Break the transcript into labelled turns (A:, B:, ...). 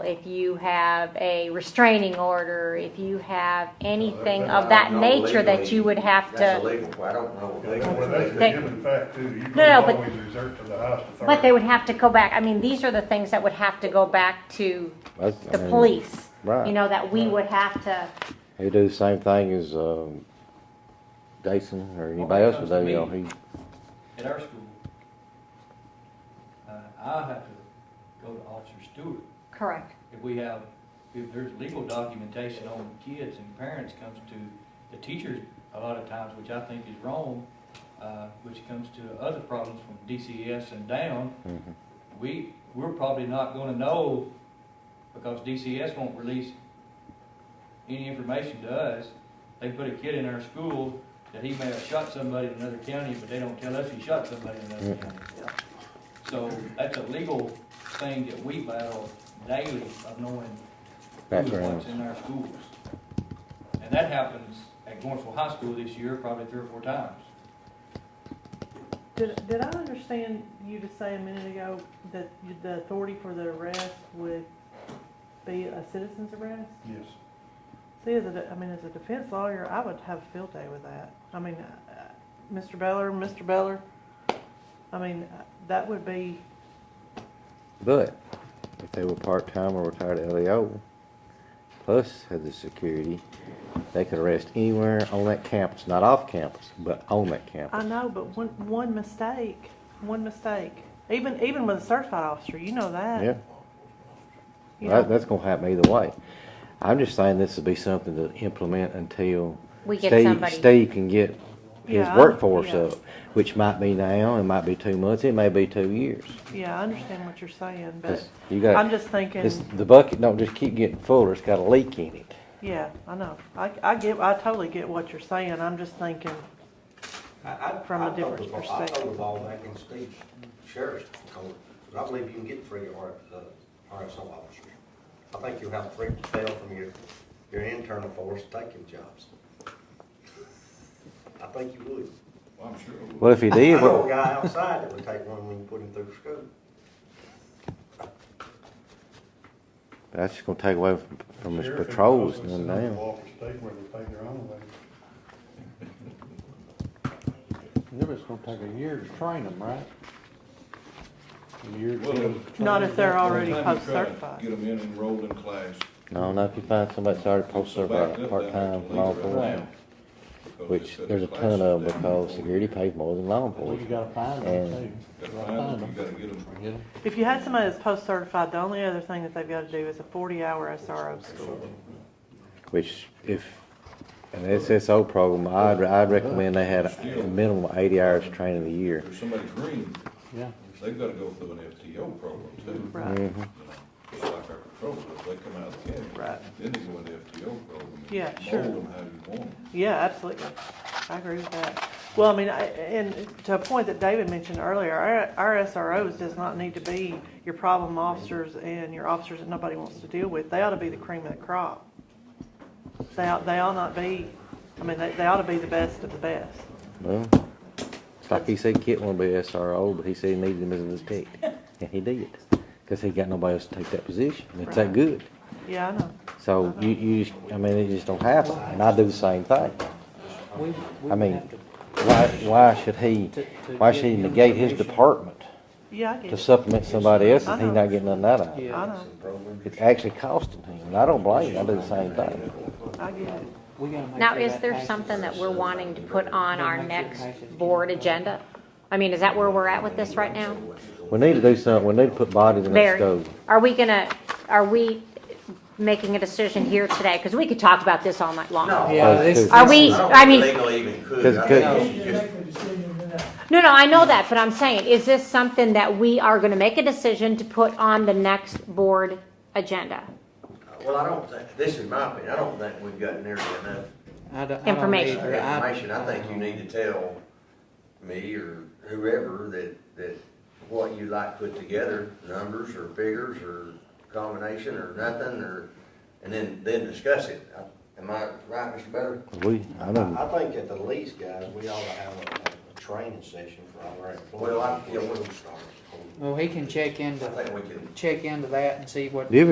A: if you have a restraining order, if you have anything
B: Well,
A: of that
B: no,
A: nature that
B: legally,
A: you would have
B: That's
A: to,
B: illegal, I don't know.
C: They go with that's the
A: They-
C: given fact too, you can
A: no, but-
C: always resort to the highest authority.
A: but they would have to go back, I mean, these are the things that would have to go back to
D: That's- I
A: the
D: mean,
A: police.
D: Right.
A: You know, that we would have to,
D: He do the same thing as, um, Jason or anybody else would do, you know, he,
E: at our school, uh, I'll have to go to Officer Stewart.
A: correct,
E: If we have, if there's legal documentation on kids and parents comes to the teachers a lot of times, which I think is wrong, uh, which comes to other problems from DCS and down,
D: Mhm.
E: we, we're probably not gonna know because DCS won't release any information to us. They put a kid in our school that he may have shot somebody in another county, but they don't tell us he shot somebody in another county. So that's a legal thing that we battle daily of knowing who's
D: Backgrounds.
E: what's in our schools. And that happens at Lawrenceville High School this year, probably three or four times.
F: Did, did I understand you to say a minute ago that you- the authority for the arrest would be a citizen's arrest?
C: Yes,
F: See, as a, de- I mean, as a defense lawyer, I would have a field day with that. I mean, uh, uh, Mr. Beller, Mr. Beller, I mean, uh, that would be,
D: but if they were part-time or retired LEO, plus had the security, they could arrest anywhere on that campus, not off campus, but on that
F: I
D: campus.
F: know, but one, one mistake, one mistake, even, even with a certified officer, you know that.
D: Yeah,
F: You
D: that,
F: know,
D: that's gonna happen either way. I'm just saying this would be something to implement until
A: we get
D: Steve,
A: somebody.
D: Steve can get his
F: Yeah, I-
D: workforce
F: yeah.
D: up, which might be now, it might be two months, it may be two years.
F: Yeah, I understand what you're saying, but
D: 'Cause you got,
F: I'm just thinking.
D: it's, the bucket don't just keep getting fuller, it's got a leak in it.
F: Yeah, I know. I, I get, I totally get what you're saying. I'm just thinking, From a different
B: I
F: perspective.
B: throw the ball back in state sheriff's court, because I believe you can get three R, uh, RSO officers. I think you'll have three fail from your, your internal force taking jobs. I think you would.
D: Well, if he
B: I
D: did,
B: know a
D: well,
B: guy outside that would take one when you put him through school.
D: that's just gonna take away from, from his
C: Sheriff is
D: patrols
C: also
D: and
C: sent up to
D: down.
C: Walker State where they pay their own way.
G: It was gonna take a year to train them, right? A year to train
F: not if they're already
H: Time to
F: post
H: try to Get
F: certified.
H: them in and enrolled in class.
D: No, not if you find somebody that's already posted
H: Back up
D: over
H: down there
D: there,
H: to
D: part-time law
H: leave right now,
D: enforcement,
H: because
D: which
H: they said
D: there's a
H: the
D: ton of
H: classes
D: them
H: down
D: because
H: for
D: security pays more than law
G: Well, you
D: enforcement.
G: gotta find them
H: You
G: too.
H: gotta
G: You
H: find
G: gotta
H: them, you gotta get them.
G: Get 'em.
F: If you had somebody that's post certified, the only other thing that they've got to do is a forty hour SRO school.
D: Which if, an SSO program, I'd, I'd recommend they had a minimum of eighty hours training a year.
H: There's somebody green,
G: yeah.
H: they've gotta go through an FTO program too.
F: Right.
H: You know, Just like our patrols, if they come out of the academy.
F: Right.
H: Then they go into FTO program. and
F: Yeah, sure.
H: Mold them how you want them.
F: Yeah, absolutely. I agree with that. Well, I mean, I, and to a point that David mentioned earlier, our, our SROs does not need to be your problem officers and your officers that nobody wants to deal with. They ought to be the cream of the crop. They ought, they ought not be, I mean, they, they ought to be the best of the best.
D: Well, it's like he said Kit wanted to be a SRO, but he said he needed him as an inspector. And he did, because he got nobody else to take that position. and It's that
F: Right.
D: good.
F: Yeah, I know.
D: So you, you, just- I mean, it just don't happen. And I do the same thing.
I: We- we
D: I mean,
I: have to-
D: Why, why should he,
I: To- to
D: why should he
I: give him
D: negate his
I: permission.
D: department
F: Yeah, I get
D: to
F: it.
D: supplement somebody else if
F: I
D: he's
F: know.
D: not getting nothing out of it?
F: I
I: Yeah,
F: know.
D: It's actually costing him, and I don't blame him. I do the same thing.
F: I get it.
I: we gotta make
A: Now,
I: sure
A: is
I: that
A: there
I: passes.
A: something that we're wanting to put on
I: Yeah,
A: our
I: make sure it
A: next
I: passes.
A: board agenda? I mean, is that where we're at with this right now?
D: We need to do something. We need to put bodies in that
A: Barry,
D: stove.
A: are we gonna, are we making a decision here today? Because we could talk about this all night long.
I: Yeah,
D: Oh,
I: this.
A: Are we,
B: I don't
A: I
B: think
A: mean,
B: Legally even could.
D: Cause-
B: I
D: cause-
B: think you should just-
A: no, no, I know that, but I'm saying, is this something that we are gonna make a decision to put on the next board agenda?
B: Well, I don't think, this is my opinion, I don't think we've gotten nearly enough
I: I don't- I don't
A: Information.
I: either. I-
B: information. I think you need to tell me or whoever that, that what you like put together, numbers or figures or combination or nothing or, and then, then discuss it. I- Am I right, Mr. Better?
D: We, I don't.
J: I think at the least, guys, we ought to have a, a training session for all our employees.
B: Well, I, yeah, we'll start.
I: Well, he can check into,
B: I think we can
I: check into that and see what.
D: Do you